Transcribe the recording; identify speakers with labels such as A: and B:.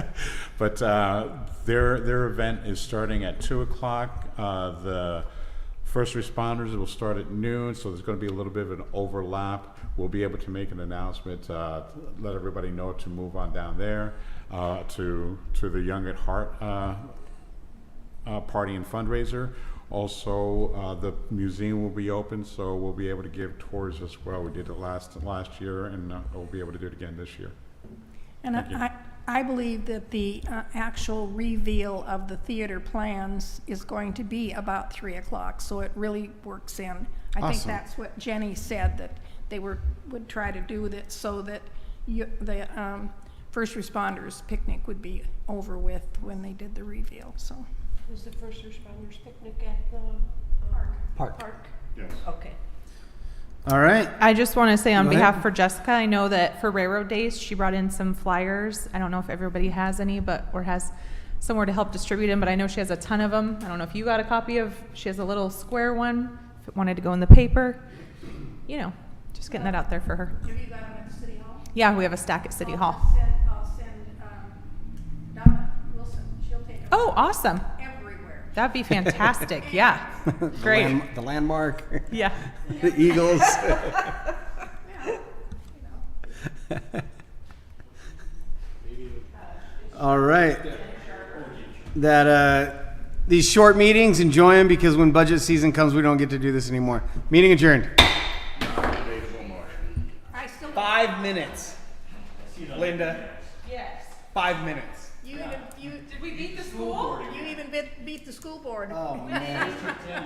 A: But uh, their, their event is starting at 2 o'clock. Uh, The first responders will start at noon, so there's going to be a little bit of an overlap. We'll be able to make an announcement, uh, let everybody know to move on down there uh, to, to the Young at Heart uh, uh, party and fundraiser. Also, uh, the museum will be open, so we'll be able to give tours as well. We did it last, last year, and uh, we'll be able to do it again this year.
B: And
A: Thank you.
B: I, I believe that the uh, actual reveal of the theater plans is going to be about 3 o'clock, so it really works in. I think
C: Awesome.
B: that's what Jenny said, that they were, would try to do with it so that you, the um, first responders picnic would be over with when they did the reveal, so.
D: Is the first responders picnic at the um,
C: Park.
D: park?
A: Yes.
D: Okay.
C: All right.
E: I just want to say on
C: Go ahead.
E: behalf for Jessica, I know that for Railroad Days, she brought in some flyers. I don't know if everybody has any, but, or has somewhere to help distribute them, but I know she has a ton of them. I don't know if you got a copy of, she has a little square one, if it wanted to go in the paper. You know, just getting that out there for her.
B: Have you got them at City Hall?
E: Yeah, we have a stack at City Hall.
B: I'll send um, Donna Wilson, she'll take them
E: Oh, awesome.
B: everywhere.
E: That'd be fantastic. Yeah.
C: The
E: Great.
C: land- The landmark,
E: Yeah.
C: the Eagles. All right. That, uh, these short meetings, enjoy them because when budget season comes, we don't get to do this anymore. Meeting adjourned.
B: I still,
C: Five minutes. Linda. Yes. Five minutes.
B: you even, you,
E: Did we beat the school?
B: you even beat, beat the school board.